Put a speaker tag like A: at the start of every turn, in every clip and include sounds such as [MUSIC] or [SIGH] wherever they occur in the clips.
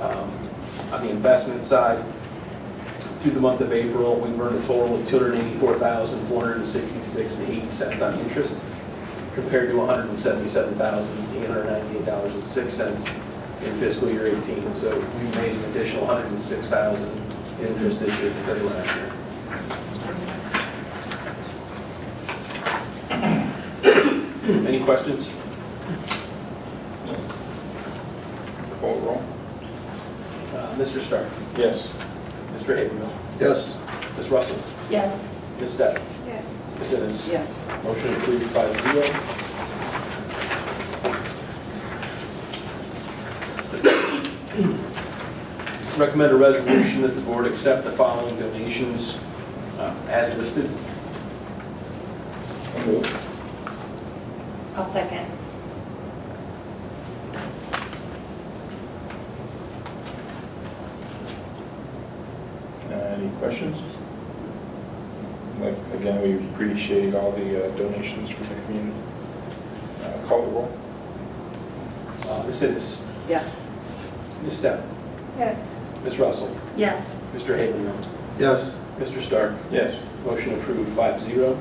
A: um, on the investment side. Through the month of April, we've earned a total of two hundred eighty-four thousand, four hundred sixty-six and eighty cents on interest, compared to one hundred seventy-seven thousand, eight hundred ninety-eight dollars and six cents in fiscal year eighteen. So we made an additional one hundred six thousand in interest this year compared to last year. Any questions?
B: Call roll.
A: Uh, Mr. Stark,
B: Yes.
A: Mr. Habermill,
B: Yes.
A: Ms. Russell,
C: Yes.
A: Ms. Stepp,
C: Yes.
A: Ms. Ennis.
C: Yes.
A: Motion approved five zero. Recommend a resolution that the board accept the following donations uh, as listed.
B: So move.
C: I'll second.
B: Uh, Any questions? Like, again, we appreciate all the uh, donations from the community. Uh, Call the roll.
A: Uh, Ms. Ennis,
C: Yes.
A: Ms. Stepp,
C: Yes.
A: Ms. Russell,
C: Yes.
A: Mr. Habermill,
D: Yes,
A: Mr. Stark,
B: Yes.
A: Motion approved, five zero.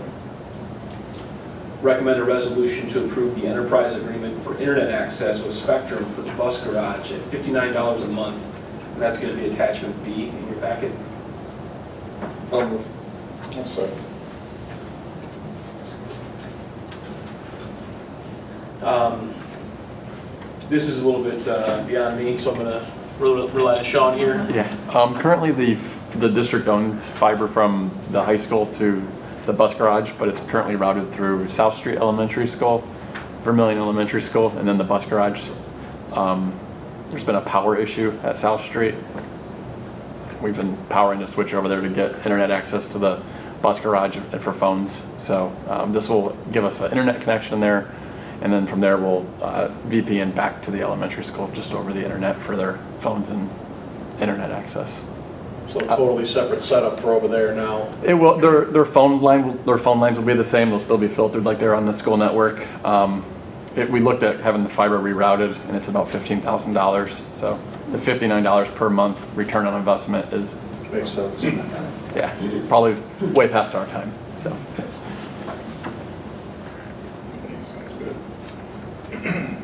A: Recommend a resolution to approve the enterprise agreement for internet access with Spectrum for the bus garage at $59 a month, and that's going to be attachment B in your packet.
B: I'll move. I'll second.
A: Um, This is a little bit uh, beyond me, so I'm going to rely on Sean here.
E: Yeah, um, currently the, the district owns fiber from the high school to the bus garage, but it's currently routed through South Street Elementary School, Vermillion Elementary School, and then the bus garage. Um, there's been a power issue at South Street. We've been powering the switch over there to get internet access to the bus garage and for phones. So, um, this will give us an internet connection there. And then from there, we'll, uh, VPN back to the elementary school just over the internet for their phones and internet access.
F: So a totally separate setup for over there now.
E: It will, their, their phone line, will- their phone lines will be the same, they'll still be filtered like they're on the school network. Um, it, we looked at having the fiber rerouted and it's about fifteen thousand dollars, so the fifty-nine dollars per month return on investment is,
F: Makes
B: [CLEARS THROAT]
F: sense.
E: yeah, probably way past our time, so.
B: Sounds good. [CLEARS THROAT]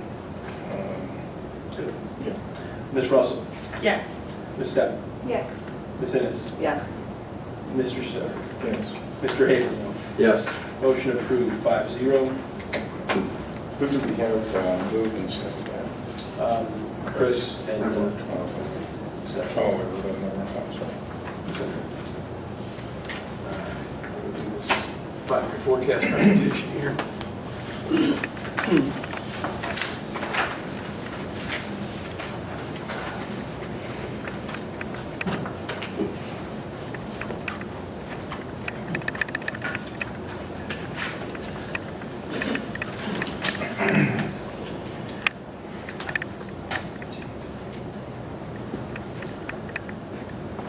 B: Um, Yeah.
A: Ms. Russell,
C: Yes.
A: Ms. Stepp,
C: Yes.
A: Ms. Ennis,
C: Yes.
A: Mr. Stark,
B: Yes.
A: Mr. Habermill.
D: yes.
A: Motion approved, five zero.
B: Who do we have uh, moved and seconded?
A: Um, Chris and uh,
B: Oh,
A: Stepp.
B: everybody, I'm sorry.
A: Five-year forecast presentation here.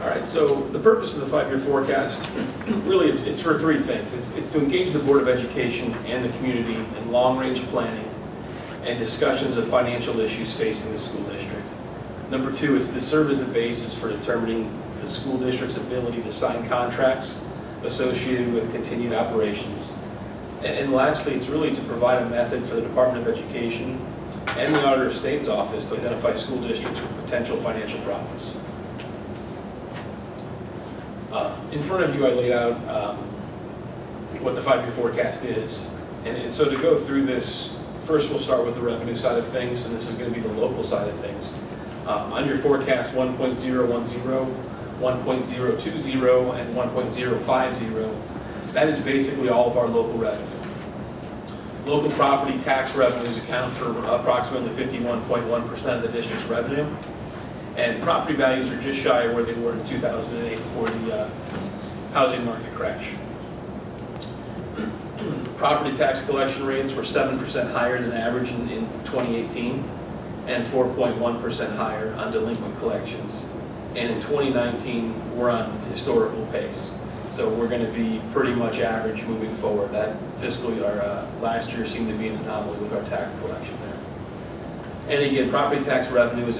A: All right, so the purpose of the five-year forecast, really, it's, it's for three things. It's, it's to engage the Board of Education and the community in long-range planning and discussions of financial issues facing the school district. Number two is to serve as the basis for determining the school district's ability to sign contracts associated with continued operations. And, and lastly, it's really to provide a method for the Department of Education and the Auditor of State's Office to identify school districts with potential financial problems. Uh, In front of you, I laid out um, what the five-year forecast is. And and so to go through this, first we'll start with the revenue side of things, and this is going to be the local side of things. Um, On your forecast, 1.010, 1.020, and 1.050, that is basically all of our local revenue. Local property tax revenues account for approximately 51.1% of the district's revenue. And property values are just shy of where they were in 2008 before the uh, housing market crash. Property tax collection rates were 7% higher than average in in 2018 and 4.1% higher on delinquent collections. And in 2019, we're on historical pace. So we're going to be pretty much average moving forward. That fiscal year, uh, last year seemed to be an anomaly with our tax collection there. And again, property tax revenue is